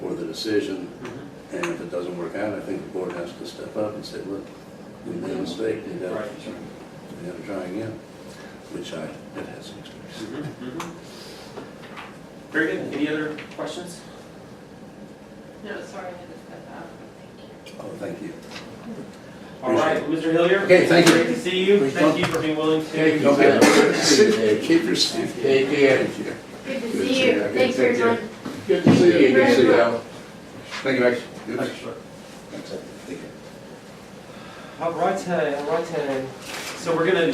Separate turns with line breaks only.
decision,
Mm-hmm.
and if it doesn't work out, I think the board has to step up and say, look, we made a mistake, we gotta,
Right.
we gotta try again, which I, it has experience.
Mhm, mhm. Very good. Any other questions?
No, sorry, I had to step out. Thank
Oh,
you.
thank you.
All right, Mr. Hillier?
Okay, thank you.
Great to see you.
Please
Thank you for being willing to.
you.
Keep your seat.
Take care.
Thank you.
Good to
Good to
see
see you.
you. Thanks for
Take care.
your time.
Good to see you, good to see you.
Thank you, Max. Good.
uh, All right, all right. So we're gonna